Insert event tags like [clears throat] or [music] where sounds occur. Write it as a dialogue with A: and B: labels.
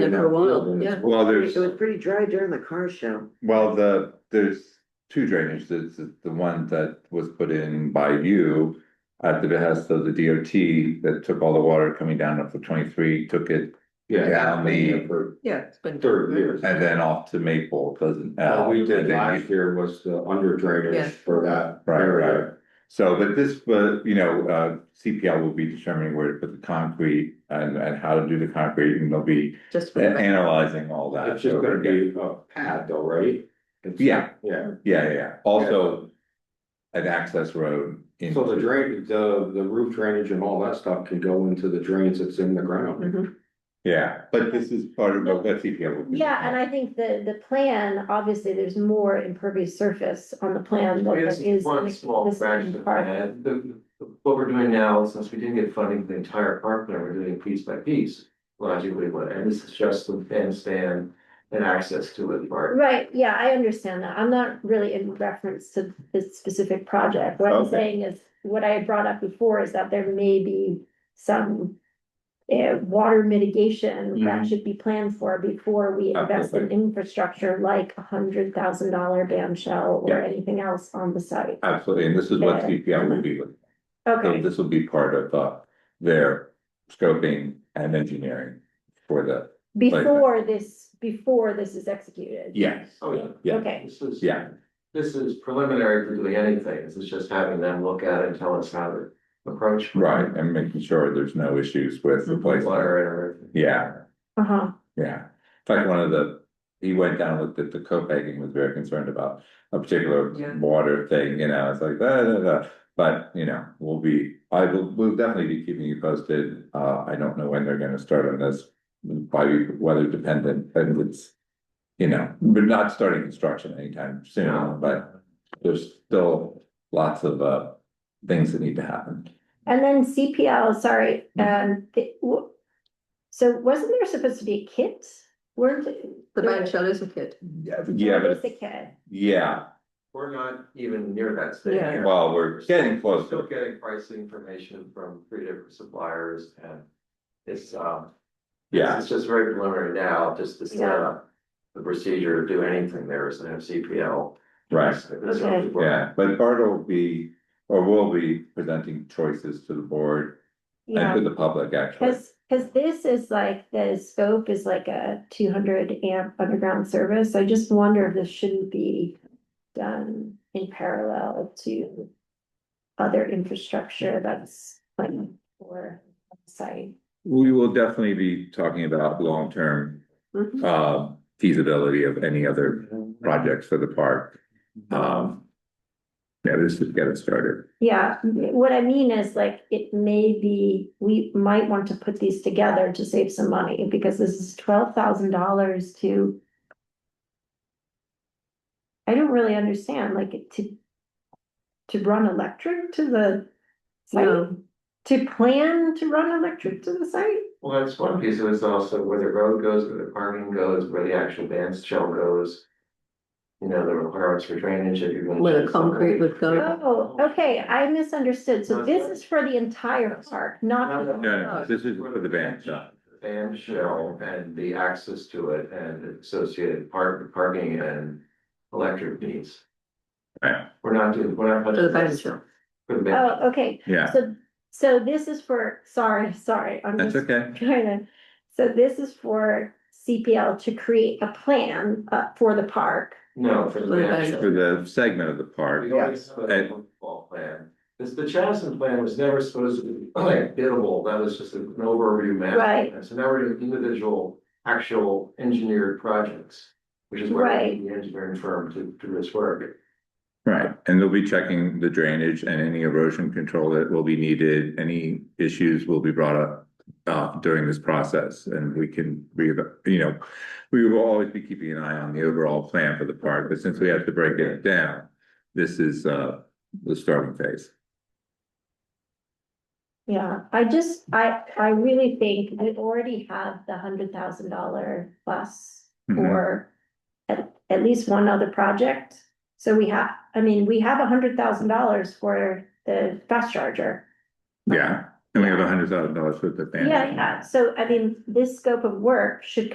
A: Yeah, for a while,
B: And it's-
A: yeah.
C: Well, there's,
B: It was pretty dry during the car show.
C: well, the, there's two drainage, there's the the one that was put in by you. At the behest of the DOT that took all the water coming down off of twenty-three, took it
D: Yeah.
C: down the,
D: For
A: Yeah, it's been.
E: Hmm.
D: third year.
C: and then off to Maple, doesn't.
D: What we did
C: And then you-
D: last year was the under
A: Yeah.
D: drainage for that
C: Right,
D: area.
C: So, but this, but, you know, uh, CPL will be determining where to put the concrete and, and how to do the concrete, and they'll be
A: Just. for the record.
C: analyzing all that.
D: It's just gonna be a pad though, right? It's-
C: Yeah.
D: Yeah,
C: Yeah, yeah, yeah. also an access road. in-
D: so the drain, the, the roof drainage and all that stuff can go into the drains that's in the ground.
A: Mhm.
C: Yeah, but this is part of what CPL will be.
F: Yeah, and I think the, the plan, obviously, there's more impervious surface on the plan than there
E: It's
F: is. in
E: one
F: the-
E: small
F: this
E: fraction of
F: part.
E: that. The- the- What we're doing now, since we didn't get funding for the entire park plan, we're doing piece by piece. Logically, what, and this is just the bandstand and access to it part.
F: Right, yeah, I understand that. I'm not really in reference to this specific project. What I'm
C: Okay.
F: saying is, what I had brought up before is that there may be some eh, water mitigation
E: Mm-hmm.
F: that should be planned for before we invest in
C: Absolutely.
F: infrastructure like a hundred thousand dollar band shell or
C: Yeah.
F: anything else on the site.
C: Absolutely, and this is what
F: Yeah.
C: CPL will be, with. so
F: Okay,
C: this will be part of, uh, their scoping and engineering for the,
F: before this, before this is executed.
C: yes,
E: Oh, yeah.
C: yeah,
F: Okay,
E: This is.
C: yeah,
E: This is preliminary to doing anything. This is just having them look at it and tell us how to approach.
C: right, and making sure there's no issues with
F: Mm-hmm.
C: the place.
E: Water and everything.
C: Yeah,
F: uh-huh,
C: Yeah, in fact, one of the, he went down, looked at the Copenhagen, was very concerned about a particular
E: Yeah.
C: water thing, you know, it's like, da, da, da. But, you know, we'll be, I will, we'll definitely be keeping you posted, uh, I don't know when they're gonna start on this. Probably weather dependent, and it's, you know, we're not starting construction anytime soon, but there's still lots of, uh. Things that need to happen,
F: and then CPL, sorry,
C: Mm-hmm.
F: um, the- w- so wasn't there supposed to be a kit? Weren't?
A: The band shell is a kid.
C: yeah,
F: There was a
C: but,
F: kit,
C: yeah,
E: We're not even near that stage.
A: Yeah.
E: yet.
C: well, we're getting close.
E: Still getting pricing information from three different suppliers and it's, um.
C: yeah,
E: It's just very preliminary now, just to set
F: Yeah.
E: up the procedure, do anything there is an MCPL.
C: right.
F: Okay.
C: Yeah, but Bart will be, or will be presenting choices to the board and
F: yeah,
C: to the public, actually.
F: cause, 'cause this is like, the scope is like a two hundred amp underground service, I just wonder if this shouldn't be done in parallel to other infrastructure that's planned for the site.
C: We will definitely be talking about long-term
F: Mm-hmm.
A: Mhm.
C: uh, feasibility of any other projects for the park. Um, yeah, this is get us started.
F: Yeah, what I mean is like, it may be, we might want to put these together to save some money, because this is twelve thousand dollars to. I don't really understand, like, to. To run electric to the site,
A: No,
F: to plan to run electric to the site?
E: Well, that's one piece of it's also where the road goes, where the parking goes, where the actual band shell goes. You know, the requirements for drainage, if you're gonna.
A: Where the
E: do something.
A: concrete would go.
F: Oh, okay, I misunderstood, so
E: No,
F: this
E: it's-
F: is for the entire park,
E: No,
F: not,
E: no,
C: No, no, this is for the band shop.
E: Band shell and the access to it and associated park, parking and electric needs.
C: Right.
E: We're not doing, we're not.
A: To the band shell.
E: For the band.
F: oh, okay,
C: Yeah,
F: so, so this is for, sorry, sorry, I'm
C: that's
F: just
C: okay.
F: Kind of, so this is for CPL to create a plan uh for the park.
E: No, for the
A: For the
E: band
A: band
E: shell.
C: For the segment of the park,
E: We always have a football plan. This, the Chatham plan was never supposed to be [clears throat] like biddable, that was just an overview map.
F: Right.
E: And so now we're doing individual, actual engineered projects, which is where we
F: Right.
E: need the engineering firm to do this work.
C: right, and they'll be checking the drainage and any erosion control that will be needed, any issues will be brought up. Uh, during this process and we can, we, you know, we will always be keeping an eye on the overall plan for the park, but since we have to break it down. This is uh, the starting phase.
F: Yeah, I just, I I really think we already have the hundred thousand dollar plus
C: Mhm.
F: for at at least one other project. So we have, I mean, we have a hundred thousand dollars for the fast charger.
C: Yeah, and we have a hundred thousand dollars for the. band.
F: Yeah, yeah, so I mean, this scope of work should